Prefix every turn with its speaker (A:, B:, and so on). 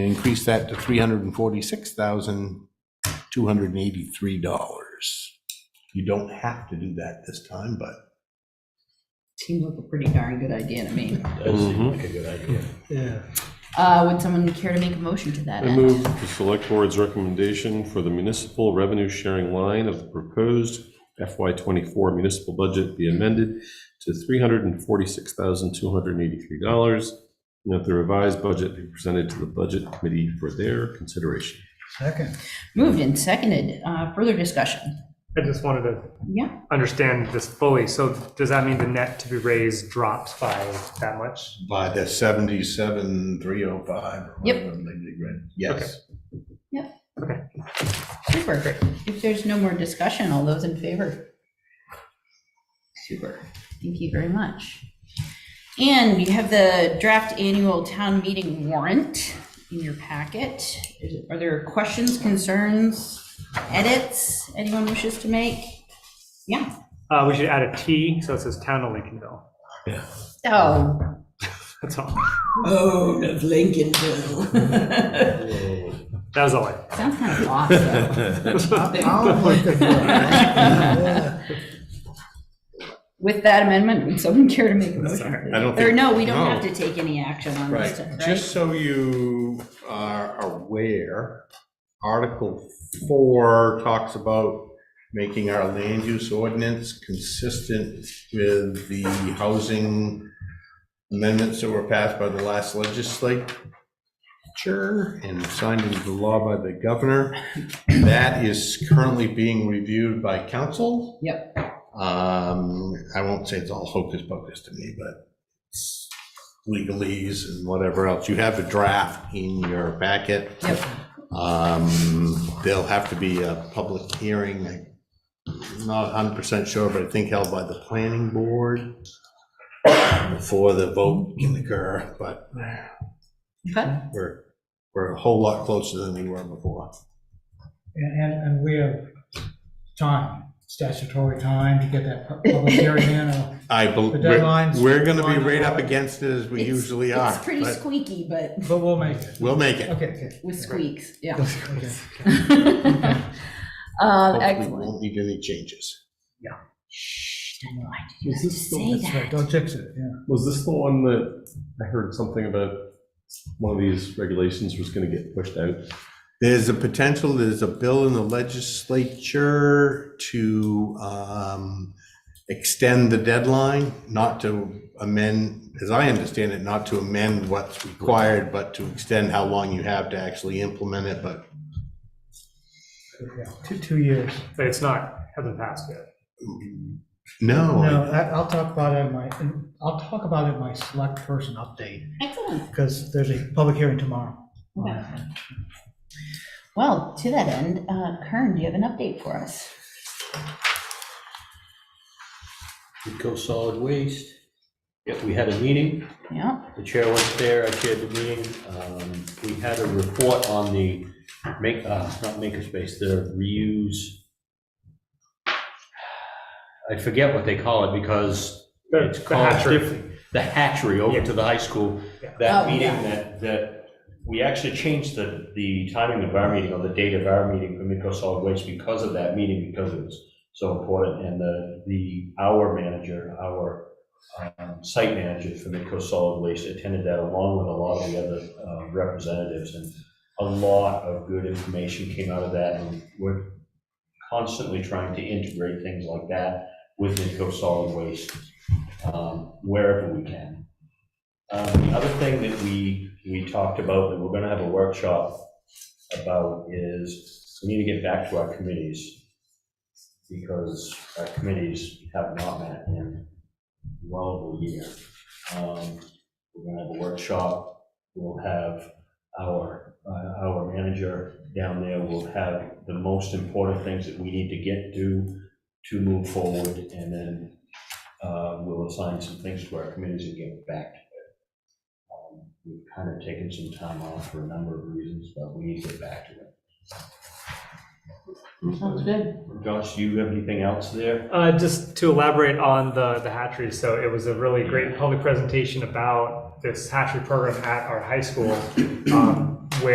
A: Increase that to $346,283. You don't have to do that this time, but
B: Seems like a pretty darn good idea to me.
C: That seems like a good idea.
D: Yeah.
B: Uh, Would someone care to make a motion to that
E: I
B: end?
E: move the select board's recommendation for the municipal revenue sharing line of the proposed FY twenty-four municipal budget be amended to three hundred and forty-six thousand, two hundred and eighty-three dollars, and that the revised budget be presented to the budget committee for their consideration.
D: Second.
B: Moved and seconded. Uh, Further discussion?
F: I just wanted to
B: Yeah,
F: understand this fully. So does that mean the net to be raised drops by that much?
A: by the 77,305 or
B: Yep.
A: whatever, maybe, right? yes.
B: super. If there's no more discussion, all those in favor? Super. Thank you very much. And you have the draft annual town meeting warrant in your packet. Is- Are there questions, concerns, edits anyone wishes to make? Yeah.
F: Uh, we should add a T, so it says town of Lincolnville.
B: Oh,
F: That's all.
G: Oh, of Lincolnville.
F: That was all I.
B: sounds kind of awesome.
D: Oh, my God. Yeah.
B: With that amendment, would someone care to make a motion?
E: I don't
B: Or
E: think,
B: no, we don't
A: no.
B: have to take any action on this,
A: Right,
B: right?
A: just so you are aware, Article 4 talks about making our land use ordinance consistent with the housing amendments that were passed by the last legislature and signed into law by the governor. That is currently being reviewed by council.
B: Yep.
A: Um, I won't say it's all hocus pocus to me, but it's legalese and whatever else. You have a draft in your packet.
B: Yep.
A: Um, there'll have to be a public hearing, I'm not hundred percent sure, but I think held by the planning board before the vote can occur, but
B: Okay.
A: we're, we're a whole lot closer than we were before.
D: And, and, and we have time, statutory time to get that pu- public hearing in. uh, or-
A: I, bel-
D: The deadline's
A: we're gonna be
D: on the
A: right up
D: ballot.
A: against it as we
B: It's-
A: usually are,
B: It's pretty Oh,
A: but
B: squeaky, but
D: But we'll make it.
A: we'll make it.
D: Okay, okay.
B: with squeaks, yeah. Uh,
D: okay.
A: Hopefully,
B: Um,
A: we
B: Excellent.
A: won't need any changes.
B: Shh, Why did you
E: Is this the-
B: say
D: That's right,
B: that?
D: don't jinx it, yeah.
E: was this the one that I heard something about, one of these regulations was gonna get pushed out?
A: There's a potential, there's a bill in the legislature to um, extend the deadline, not to amend, as I understand it, not to amend what's required, but to extend how long you have to actually implement it, but
D: yeah. Two, two years.
F: But it's not, hasn't passed yet.
D: No,
A: no.
D: I- I'll talk about it in my, I'll talk about it in my select person update,
B: Excellent.
D: because there's a public hearing tomorrow.
B: Okay. Well, to that end, uh, Kern, do you have an update for us?
C: We go solid waste. Yep, we had a meeting.
B: Yeah,
C: The chair was there. I chaired the meeting. Um, We had a report on the make, uh, not makerspace, the reuse. I forget what they call it because
F: The-
C: it's
F: the
C: called
F: hatchery.
C: different. The hatchery over to the high school.
F: Yeah.
B: Oh,
C: That meeting
B: yeah.
C: that, that, we actually changed the, the timing of our meeting or the date of our meeting for Midco Solid Waste because of that meeting, because it was so important. And the, the, our manager, our um, site manager for Midco Solid Waste attended that along with a lot of the other uh, representatives. And a lot of good information came out of that. And we're constantly trying to integrate things like that with Midco Solid Waste um, wherever we can. Um, The other thing that we, we talked about, that we're going to have a workshop about is we need to get back to our committees because our committees have not met in well over a year. Um, We're going to have a workshop, we'll have our, uh, our manager down there, we'll have the most important things that we need to get to, to move forward, and then uh, we'll assign some things to our committees and get back to it. Um, We've kind of taken some time off for a number of reasons, but we need to get back to it.
B: sounds good.
C: Josh, do you have anything else there?
F: Uh, just to elaborate on the, the hatchery, so it was a really great public presentation about this hatchery program at our high school. Um,